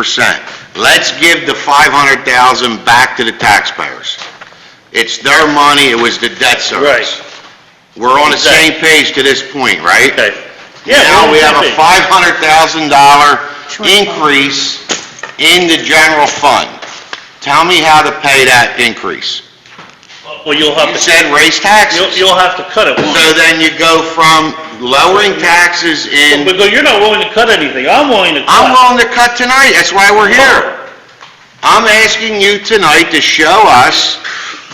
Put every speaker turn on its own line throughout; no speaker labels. percent. Let's give the five hundred thousand back to the taxpayers. It's their money, it was the debt service.
Right.
We're on the same page to this point, right?
Okay. Yeah,
Now, we have a
exactly.
five hundred thousand dollar increase in the general fund. Tell me how to pay that increase.
Well, you'll have
You
to,
said raise
you'll,
taxes.
you'll have to cut it.
So then you go from lowering taxes in,
Because you're not willing to cut anything, I'm willing to
I'm
cut.
willing to cut tonight, that's why we're here. I'm asking you tonight to show us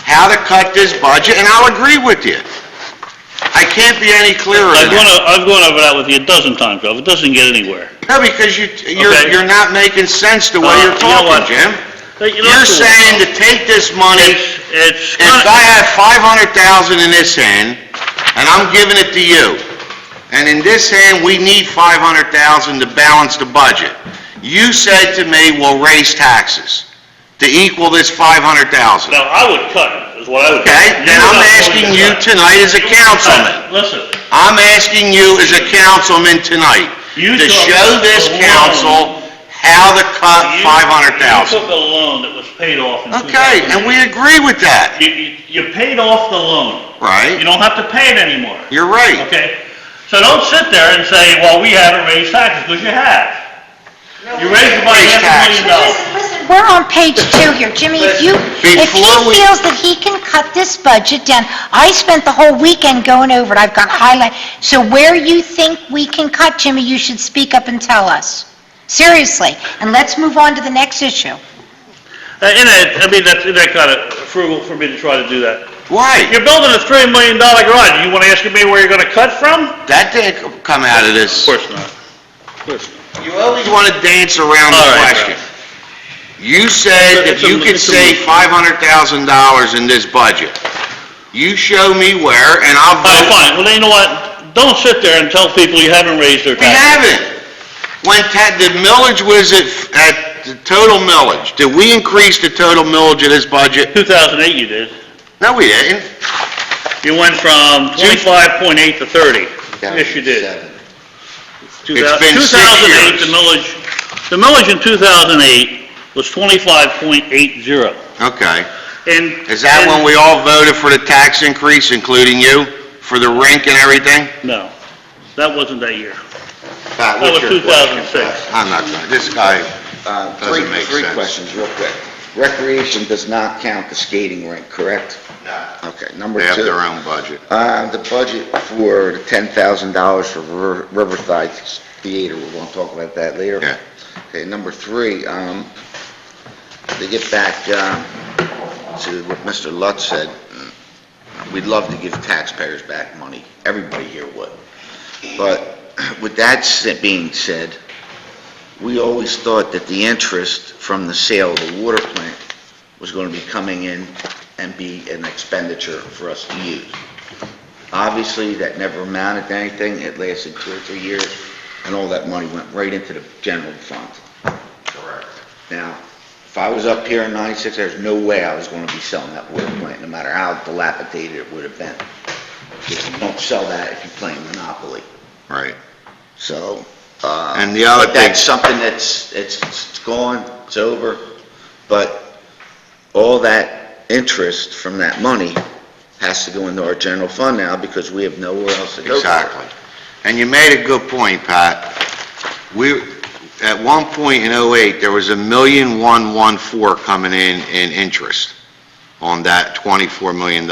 how to cut this budget, and I'll agree with you. I can't be any clearer
I've
than
gone,
that.
o- I've gone over that with you a dozen times, Ralph, it doesn't get anywhere.
No, because you, you're,
Okay.
you're not making sense the way
Uh,
you're
you
talking,
know what?
Jim.
But you know,
You're
it's-
saying to take this money,
It's,
if
it's,
I
kinda-
have five hundred thousand in this hand, and I'm giving it to you, and in this hand, we need five hundred thousand to balance the budget. You said to me, we'll raise taxes to equal this five hundred thousand.
no, I would cut, it, is what I would. do.
Okay,
You
then
were
I'm
not willing
asking you
cut.
tonight as a councilman,
Cut. Listen,
I'm asking you as a councilman tonight,
You
to
took
show this
the loan.
council how to cut
you.
five hundred
You
thousand.
took a loan that was paid off in
Okay,
2000.
and we agree with that,
You, you, you paid off the loan. You
right?
don't have to pay it anymore.
You're right.
Okay? So don't sit there and say, well, we haven't raised taxes, because you have. You raised about
Raised
half a million dollars.
Listen, listen, we're on page two here, Jimmy, if you, if he
Before we-
feels that he can cut this budget down, I spent the whole weekend going over it, I've got highlight, so where you think we can cut, Jimmy, you should speak up and tell us. Seriously, and let's move on to the next issue.
Uh, And I, I mean, that's, that kind of frugal for me to try to do that.
Why?
You're building a three million dollar garage, you want to ask me where you're gonna cut from?
That didn't come out of this.
not. Of course not.
You always want to dance around the
All right,
question. You said
It's a-
if
it's a-
you could
it's a-
save five hundred thousand dollars in this budget, you show me where, and I'll
All right,
vote.
fine, well, then you know what, don't sit there and tell people you haven't raised their
We
taxes.
haven't. When ta- the millage was at, at the total millage, did we increase the total millage of this budget?
Two thousand eight you did,
No, we didn't.
you went from twenty-five point eight to thirty. Yes, you did.
It's been six
2008,
years.
the millage, the millage in 2008 was 25.80.
Okay.
And...
Is that when we all voted for the tax increase, including you, for the rink and everything?
No, that wasn't that year.
Pat,
That
what's
was
your question?
2006.
I'm not, gonna- this guy
Uh, Three,
doesn't make
three
sense.
questions, real quick. Recreation does not count the skating rink, correct? Okay, number
They have their
two,
own budget.
uh, the budget for the $10,000 for River- Riverside Theater, we're going to talk about that later.
Yeah.
Okay, number three, um, to get back um, to what Mr. Lutz said, mm, we'd love to give taxpayers back money, everybody here would. But with that s- being said, we always thought that the interest from the sale of the water plant was going to be coming in and be an expenditure for us to use. Obviously, that never amounted to anything, it lasted two or three years, and all that money went right into the general fund.
Correct.
Now, if I was up here in 96, there's no way I was going to be selling that water plant, no matter how dilapidated it would have been. If you don't sell that, if you're playing Monopoly,
Right.
so... uh,
And the other
But
thing-
that's something that's, it's it's gone, it's over, but all that interest from that money has to go into our general fund now, because we have nowhere else to go. with it.
Exactly. And you made a good point, Pat. We, at one point in '08, there was a million one one four coming in, in interest on that $24 million.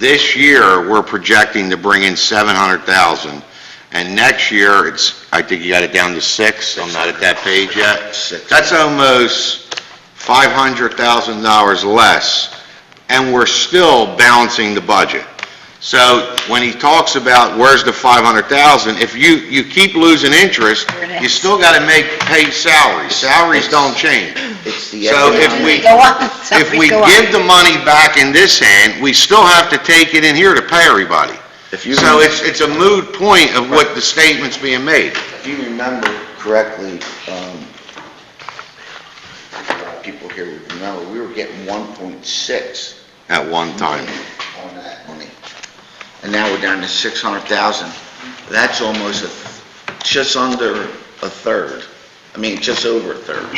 This year, we're projecting to bring in 700,000, and next year, it's, I think you got it down to six, I'm not at that page yet.
Six.
That's almost $500,000 less, and we're still balancing the budget. So when he talks about where's the 500,000, if you, you keep losing interest,
it
you
is.
still got to make, pay salaries. Salaries don't change.
It's the
So if
economic-
we-
Go on,
If
sorry,
we
go on.
give the money back in this hand, we still have to take it in here to pay everybody.
If you-
So it's, it's a moot point of what the statement's being made.
If you remember correctly, um, a lot of people here would remember, we were getting 1.6
At one time.
on that money, and now we're down to 600,000. That's almost a, just under a third I mean, just over a third.